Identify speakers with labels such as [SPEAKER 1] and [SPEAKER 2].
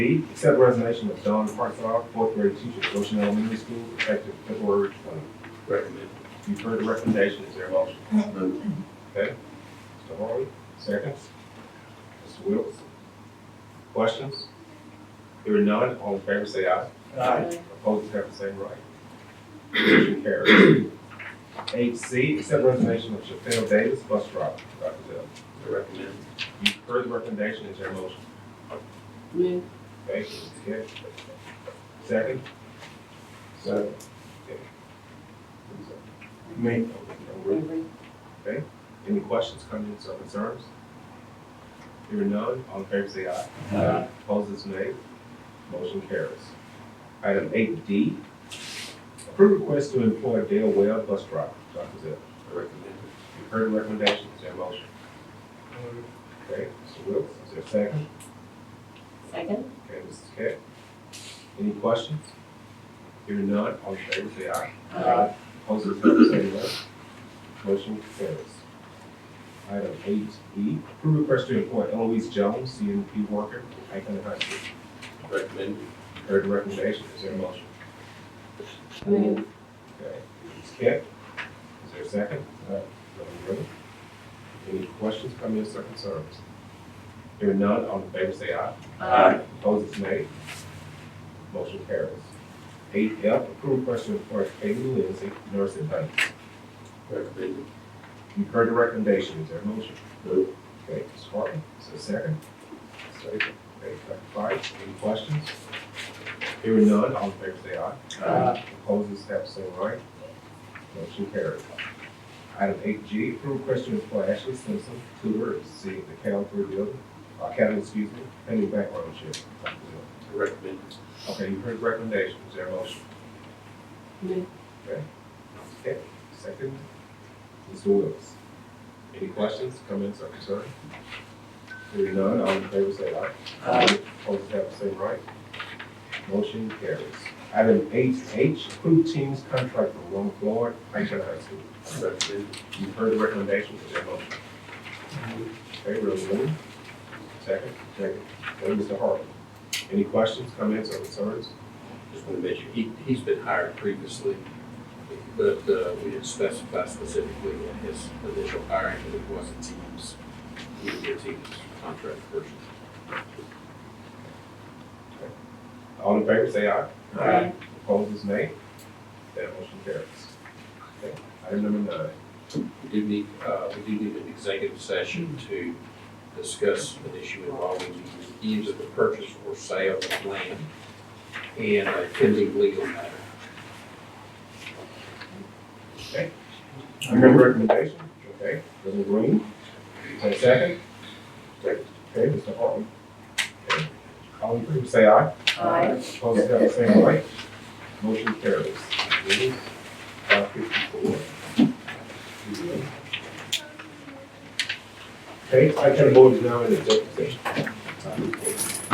[SPEAKER 1] B, accept resignation of Dawn Hartsoff, fourth grade teacher at Goshen Elementary School, effective February twenty.
[SPEAKER 2] Recommend.
[SPEAKER 1] You've heard the recommendation, is there a motion?
[SPEAKER 2] Move.
[SPEAKER 1] Okay. Mr. Harvey, seconds. Mr. Wilks? Questions? Hearing none, all in favor say aye.
[SPEAKER 2] Aye.
[SPEAKER 1] Opposed have the same right. Motion carries. Eight C, accept resignation of Chappelle Davis, bus driver, Dr. Dale.
[SPEAKER 2] Recommend.
[SPEAKER 1] You've heard the recommendation, is there a motion?
[SPEAKER 3] Move.
[SPEAKER 1] Thank you, okay. Second? Second. Me. Okay, any questions, comments, or concerns? Hearing none, all in favor say aye.
[SPEAKER 2] Aye.
[SPEAKER 1] Opposed is nay. Motion carries. Item eight D, approve request to employ Dale Webb, bus driver, Dr. Zell.
[SPEAKER 2] Recommend.
[SPEAKER 1] You've heard the recommendation, is there a motion? Okay, Mr. Wilks, is there a second?
[SPEAKER 3] Second.
[SPEAKER 1] Okay, Mrs. Cat. Any questions? Hearing none, all in favor say aye.
[SPEAKER 3] Aye.
[SPEAKER 1] Opposed, is the same way. Motion carries. Item eight E, approve request to employ Eloise Jones, CNP worker, Icon High School.
[SPEAKER 2] Recommend.
[SPEAKER 1] Heard the recommendation, is there a motion?
[SPEAKER 3] Move.
[SPEAKER 1] Okay, Mrs. Cat, is there a second? Uh, Madam Clerk? Any questions, comments, or concerns? Hearing none, all in favor say aye.
[SPEAKER 2] Aye.
[SPEAKER 1] Opposed is nay. Motion carries. Eight F, approve question for Peggy Lindsay, nurse at Huntington.
[SPEAKER 2] Recommend.
[SPEAKER 1] You've heard the recommendation, is there a motion?
[SPEAKER 2] Move.
[SPEAKER 1] Okay, Ms. Hartman, is there a second? Second. Okay, Dr. Price, any questions? Hearing none, all in favor say aye.
[SPEAKER 3] Aye.
[SPEAKER 1] Opposed, is have the same right. Motion carries. Item eight G, approve question for Ashley Simpson, tutor at C, the Cal three building, academy, excuse me, pending background check. Dr. Zell.
[SPEAKER 2] Recommend.
[SPEAKER 1] Okay, you've heard the recommendation, is there a motion?
[SPEAKER 3] Move.
[SPEAKER 1] Okay, second, Mr. Willis. Any questions, comments, or concerns? Hearing none, all in favor say aye. Aye. Opposed have the same right. Motion carries. Item eight H, approved teams contract for Roman Floyd, Franklin High School.
[SPEAKER 2] Recommend.
[SPEAKER 1] You've heard the recommendation, is there a motion? Okay, Reverend Lee. Second. Second. Then Mr. Harvey. Any questions, comments, or concerns?
[SPEAKER 2] Just want to mention, he, he's been hired previously, but, uh, we didn't specify specifically in his initial hiring that it was a team's, he was a team's contract person.
[SPEAKER 1] All in favor say aye.
[SPEAKER 3] Aye.
[SPEAKER 1] Opposed is nay. That motion carries. Okay, Item number nine.
[SPEAKER 2] We do need, uh, we do need an executive session to discuss an issue involving the use of the purchase or sale of land and a pending legal matter.
[SPEAKER 1] I heard the recommendation. Okay, Mr. Green. Is there a second? Okay, Mr. Hartman. Okay. All in favor say aye.
[SPEAKER 3] Aye.
[SPEAKER 1] Opposed have the same right. Motion carries. It is Five fifty-four. Okay, I can vote now in executive session.